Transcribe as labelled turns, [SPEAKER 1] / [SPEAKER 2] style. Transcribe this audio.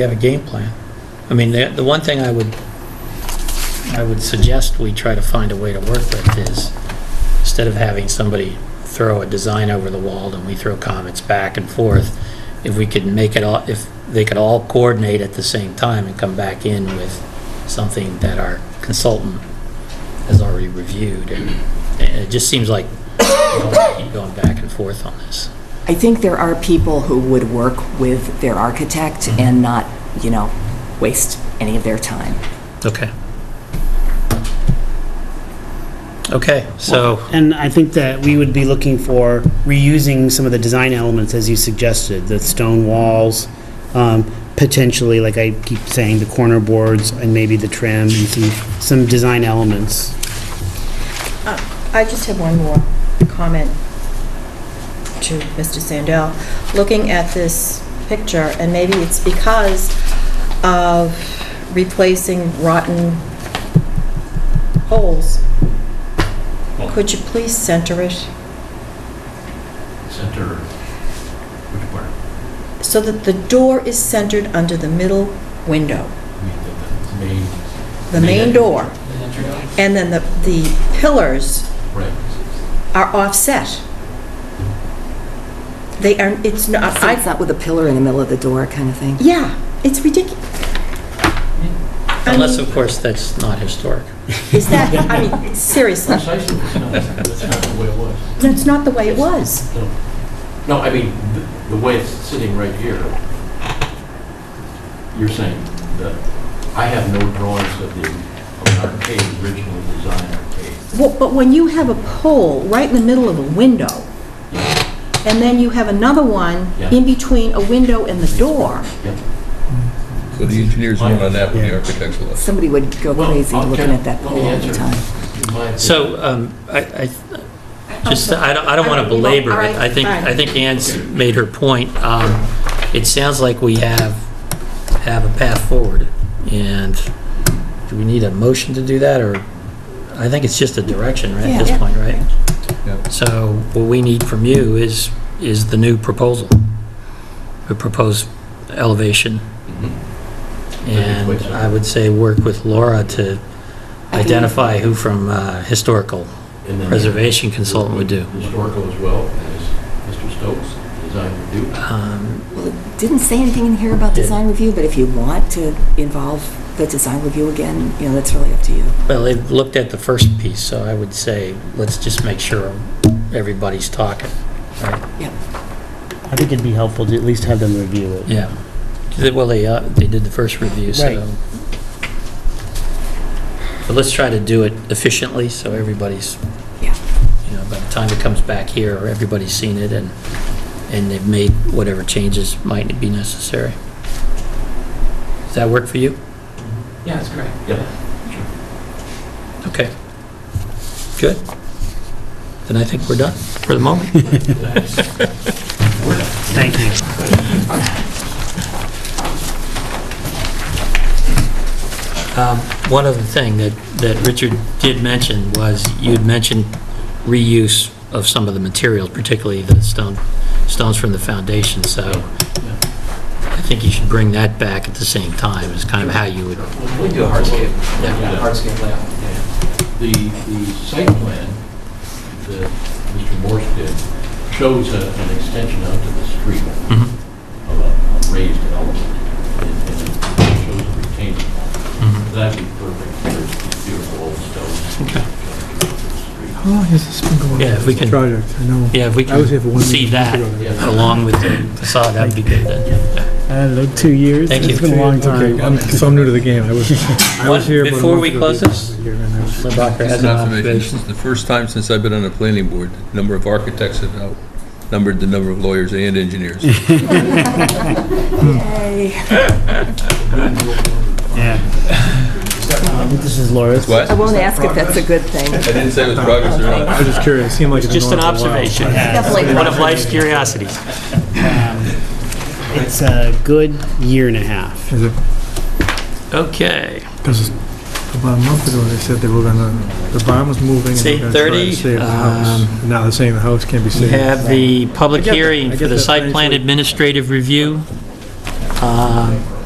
[SPEAKER 1] We have a game plan. I mean, the, the one thing I would, I would suggest we try to find a way to work with is, instead of having somebody throw a design over the wall and we throw comments back and forth, if we could make it all, if they could all coordinate at the same time and come back in with something that our consultant has already reviewed, and and it just seems like we don't keep going back and forth on this.
[SPEAKER 2] I think there are people who would work with their architect
[SPEAKER 3] Mm-hmm.
[SPEAKER 2] and not, you know, waste any of their time.
[SPEAKER 1] Okay. Okay, so,
[SPEAKER 4] And I think that we would be looking for reusing some of the design elements as you suggested, the stone walls, um, potentially, like I keep saying, the corner boards and maybe the trim and some, some design elements.
[SPEAKER 5] I just have one more comment to Mr. Sandell. Looking at this picture, and maybe it's because of replacing rotten holes, could you please center it
[SPEAKER 3] Center, which part?
[SPEAKER 5] so that the door is centered under the middle window,
[SPEAKER 3] I mean, the- the main.
[SPEAKER 5] the main door? And then the, the pillars
[SPEAKER 3] Right.
[SPEAKER 5] are offset. They are, it's not, I
[SPEAKER 2] It's not with a pillar in the middle of the door kind of thing.
[SPEAKER 5] Yeah, it's ridiculous.
[SPEAKER 1] unless, of course, that's not historic.
[SPEAKER 5] Is that, I mean, seriously,
[SPEAKER 3] Precisely, it's not, that's not the way it was.
[SPEAKER 5] that's not the way it was.
[SPEAKER 3] No. No, I mean, th- the way it's sitting right here, you're saying that I have no drawings of the, of an arcade, original design arcade.
[SPEAKER 5] Well, But when you have a pole right in the middle of a window, and then you have another one
[SPEAKER 3] Yeah.
[SPEAKER 5] in between a window and the door,
[SPEAKER 6] So the engineers went on that, but the architects left.
[SPEAKER 2] Somebody would go
[SPEAKER 3] Well,
[SPEAKER 2] crazy
[SPEAKER 3] I'll-
[SPEAKER 2] looking
[SPEAKER 3] can-
[SPEAKER 2] at that
[SPEAKER 3] let me
[SPEAKER 2] pole all the
[SPEAKER 3] answer.
[SPEAKER 2] time.
[SPEAKER 3] In my opinion.
[SPEAKER 1] So, um, I, I, just, I don't, I don't want to
[SPEAKER 5] Okay.
[SPEAKER 1] belabor
[SPEAKER 5] All
[SPEAKER 1] it.
[SPEAKER 5] right,
[SPEAKER 1] I think,
[SPEAKER 5] fine.
[SPEAKER 1] I think Anne's made her point. Um, It sounds like we have, have a path forward, and do we need a motion to do that, or, I think it's just a direction, right, at this
[SPEAKER 5] Yeah.
[SPEAKER 1] point, right?
[SPEAKER 6] Yeah.
[SPEAKER 1] So what we need from you is, is the new proposal, the proposed elevation.
[SPEAKER 3] Mhm.
[SPEAKER 1] And I would say work with Laura to identify who from uh, historical
[SPEAKER 3] And then-
[SPEAKER 1] preservation consultant would do.
[SPEAKER 3] Historical as well, as Mr. Stokes, design would do.
[SPEAKER 1] Um,
[SPEAKER 2] Well, it Didn't say anything in here about
[SPEAKER 1] Didn't.
[SPEAKER 2] design review, but if you want to involve the design review again, you know, that's really up to you.
[SPEAKER 1] Well, they've looked at the first piece, so I would say, let's just make sure everybody's talking. right?
[SPEAKER 4] I think it'd be helpful to at least have them review it.
[SPEAKER 1] Yeah. Well, they, uh, they did the first review,
[SPEAKER 4] Right.
[SPEAKER 1] so. But let's try to do it efficiently, so everybody's,
[SPEAKER 2] Yeah.
[SPEAKER 1] you know, by the time it comes back here, everybody's seen it and, and they've made whatever changes might be necessary. Does that work for you?
[SPEAKER 3] Yeah, that's great. Yeah.
[SPEAKER 1] Okay. Good. Then I think we're done for the moment.
[SPEAKER 4] Thank you.
[SPEAKER 1] Um, One other thing that, that Richard did mention was, you'd mentioned reuse of some of the materials, particularly the stone, stones from the foundation, so I think you should bring that back at the same time, is kind of how you would,
[SPEAKER 7] We do a hardscape,
[SPEAKER 1] Yeah.
[SPEAKER 7] yeah, hardscape layout.
[SPEAKER 3] The, the site plan that Mr. Morse did shows a- an extension out to the street
[SPEAKER 1] Mhm.
[SPEAKER 3] of a a raised element, and and it shows a retaining wall. That'd be perfect for beautiful old
[SPEAKER 1] Okay.
[SPEAKER 3] stones.
[SPEAKER 8] How long has this Oh, been going on?
[SPEAKER 1] Yeah, if we
[SPEAKER 8] this
[SPEAKER 1] can-
[SPEAKER 8] Project, I know.
[SPEAKER 1] yeah, if we
[SPEAKER 8] I was here for
[SPEAKER 1] can
[SPEAKER 8] one
[SPEAKER 1] see
[SPEAKER 8] meeting.
[SPEAKER 1] that along with the facade, that'd be good then.
[SPEAKER 8] I don't know, Uh, two years?
[SPEAKER 1] Thank you.
[SPEAKER 8] It's been a long
[SPEAKER 1] Okay,
[SPEAKER 8] time. I'm- So I'm new to the game. I was, I
[SPEAKER 1] What-
[SPEAKER 8] was here. about a
[SPEAKER 1] before
[SPEAKER 8] month
[SPEAKER 1] we
[SPEAKER 8] ago.
[SPEAKER 1] close this?
[SPEAKER 8] Here and I was-
[SPEAKER 1] Limbach has
[SPEAKER 6] Just
[SPEAKER 1] an
[SPEAKER 6] an observation, this
[SPEAKER 1] observation.
[SPEAKER 6] is the first time since I've been on the planning board, the number of architects have outnumbered the number of lawyers and engineers.
[SPEAKER 4] Yeah. I think this is Laura's.
[SPEAKER 6] What?
[SPEAKER 2] I won't ask if that's a good thing.
[SPEAKER 6] I didn't say it was progress or not.
[SPEAKER 8] I was just curious. It seemed like it's been
[SPEAKER 1] Just
[SPEAKER 8] going
[SPEAKER 1] an
[SPEAKER 8] on for a while.
[SPEAKER 1] observation,
[SPEAKER 2] Definitely.
[SPEAKER 1] one of life's curiosities.
[SPEAKER 4] It's a good year and a half.
[SPEAKER 8] Is it-
[SPEAKER 1] Okay,
[SPEAKER 8] 'cause About a month ago, they said they were gonna, the barn was moving. and
[SPEAKER 1] It's
[SPEAKER 8] they were gonna try to
[SPEAKER 1] 8:30,
[SPEAKER 8] Save the house.
[SPEAKER 1] um,
[SPEAKER 8] And Now they're saying the house can't be
[SPEAKER 1] we
[SPEAKER 8] saved.
[SPEAKER 1] have the public
[SPEAKER 8] I get that.
[SPEAKER 1] hearing
[SPEAKER 8] I
[SPEAKER 1] for
[SPEAKER 8] get
[SPEAKER 1] the
[SPEAKER 8] that
[SPEAKER 1] site plan
[SPEAKER 8] eventually.
[SPEAKER 1] administrative review. Um,